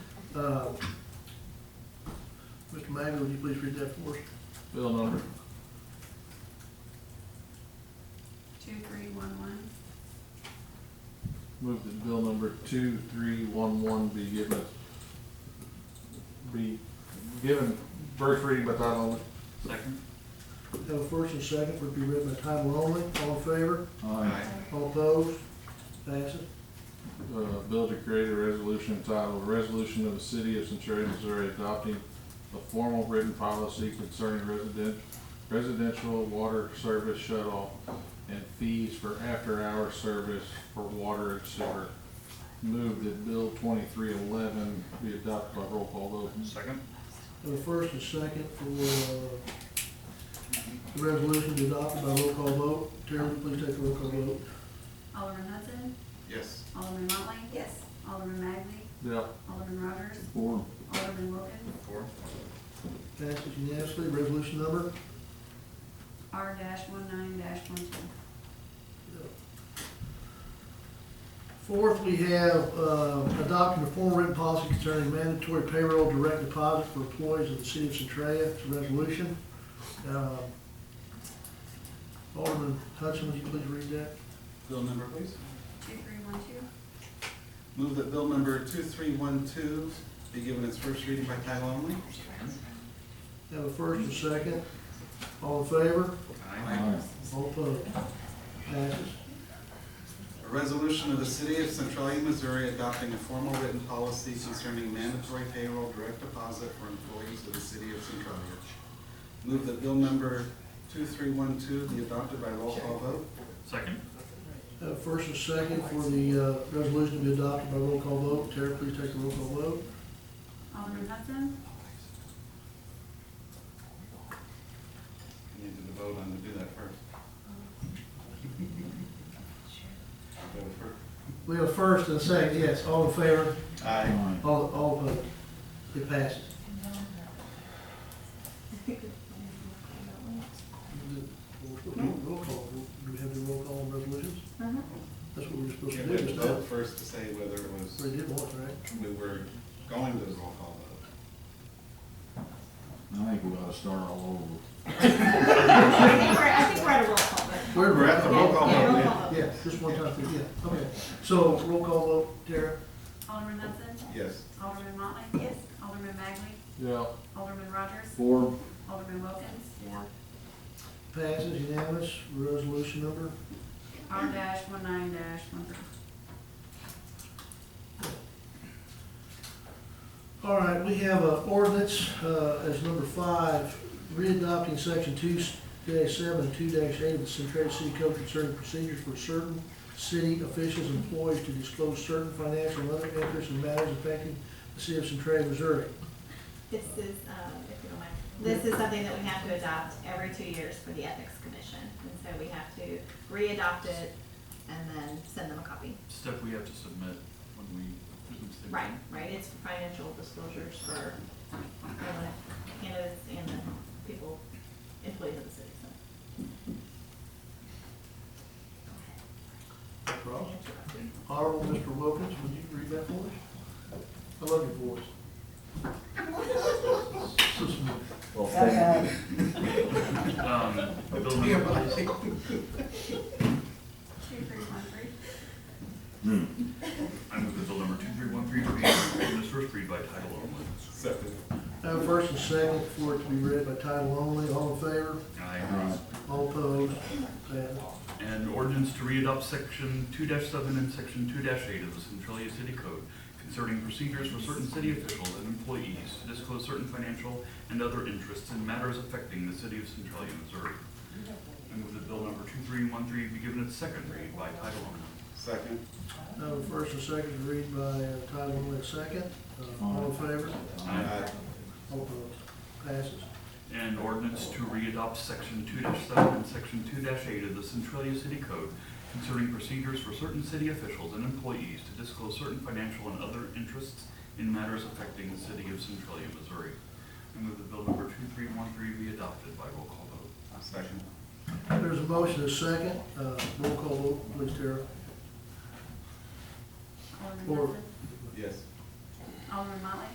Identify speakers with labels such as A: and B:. A: Uh, Mr. Magley, would you please read that for us?
B: Bill number
C: two, three, one, one.
B: Move that bill number two, three, one, one be given, be given first reading by title only.
D: Second.
A: Have a first and second, would be read by title only, all in favor,
D: Aye.
A: all opposed, passes.
B: Uh, bill to create a resolution entitled, "A Resolution of the City of Centaria, Missouri adopting a formal written policy concerning resident, residential water service shut-off and fees for after-hour service for water and sewer. Move that bill twenty-three eleven be adopted by roll call vote.
D: Second.
A: Have a first and second for, uh, the resolution to adopt by roll call vote. Terry, would you please take the roll call vote.
C: Alderman Hudson,
D: Yes.
C: Alderman Motley. Yes. Alderman Magley,
B: Yeah.
C: Alderman Rogers,
B: Four.
C: Alderman Wilkins,
D: Four.
A: Passes unanimously, resolution number?
C: R dash one nine dash one two.
A: Fourth, we have, uh, adopting a formal written policy concerning mandatory payroll direct deposit for employees of the city of Centralia. It's a resolution. Uh, Alderman Hudson, would you please read that?
E: Bill number, please.
C: Two, three, one, two.
E: Move that bill number 2312 be given its first reading by title only.
D: Second.
A: Have a first and second. All in favor?
D: Aye.
A: All opposed? Passes.
E: A resolution of the city of Centralia, Missouri adopting a formal written policy concerning mandatory payroll direct deposit for employees of the city of Centralia. Move that bill number 2312 be adopted by roll call vote.
D: Second.
A: Uh, First and second for the uh, resolution to be adopted by roll call vote. Tara, please take the roll call vote.
C: Alderman Hudson,
E: You Need to vote on to do that first. Vote
A: We have a first and a second, yes, all in favor,
E: first. Aye.
A: all, all opposed. It passes. Roll call, do we have to roll call on resolutions? That's what we were supposed
E: You
A: to do
E: had
A: this
E: to
A: time.
E: vote first to say whether it was.
A: We did once, right?
E: we were going to the roll call vote.
F: I think we ought to start all over.
G: I think we're, I think we're at a roll call, but.
A: Where
E: We're at the roll call
G: Yeah, roll
E: vote.
G: call vote.
A: Yeah, just one time, yeah, okay. So roll call vote, Tara?
C: Alderman Hudson,
E: Yes.
C: Alderman Motley.
G: Yes.
C: Alderman Magley,
B: Yeah.
C: Alderman Rogers,
F: Four.
C: Alderman Wilkins.
A: Passes unanimous, resolution number?
C: R dash one nine dash one three.
A: All right, we have an ordinance, uh, as number five, readopting section two dash seven, two dash eight of the Centralia City Code concerning procedures for certain city officials and employees to disclose certain financial and other interests and matters affecting the city of Centralia, Missouri.
G: This is, um, if you don't mind, this is something that we have to adopt every two years for the Ethics Commission. And so we have to re-adopt it and then send them a copy.
D: Stuff we have to submit when we.
G: Right, right, it's for financial disclosures for uh, candidates and the people, employees of the city, so.
A: No problem. Honorable Mr. Wilkins, would you read that for us? I love your voice. So smooth.
F: Well, second.
D: Um, bill number,
C: Two, three, one, three.
D: I move the bill number two, three, one, three, three, given its first read by title only.
E: Second.
A: I have a first and second for it to be read by title only, all in favor,
D: Aye.
A: all opposed, passes.
D: And ordinance to re-adopt section two seven and section two eight of the Centralia City Code concerning procedures for certain city officials and employees to disclose certain financial and other interests in matters affecting the city of Centralia, Missouri. I move that bill number two three one three be given its second read by title only.
E: Second.
A: I have a first and second to read by uh, title only, a second. Uh, All in favor?
E: Aye.
A: All opposed? Passes.
D: And ordinance to re-adopt section two seven and section two eight of the Centralia City Code concerning procedures for certain city officials and employees to disclose certain financial and other interests in matters affecting the city of Centralia, Missouri. I move that bill number two three one three be adopted by roll call vote.
E: Second.
A: There's a motion, a second. Uh, Roll call vote, please, Tara.
C: Alderman
A: Four.
C: Hudson,
E: Yes.
C: Alderman Motley.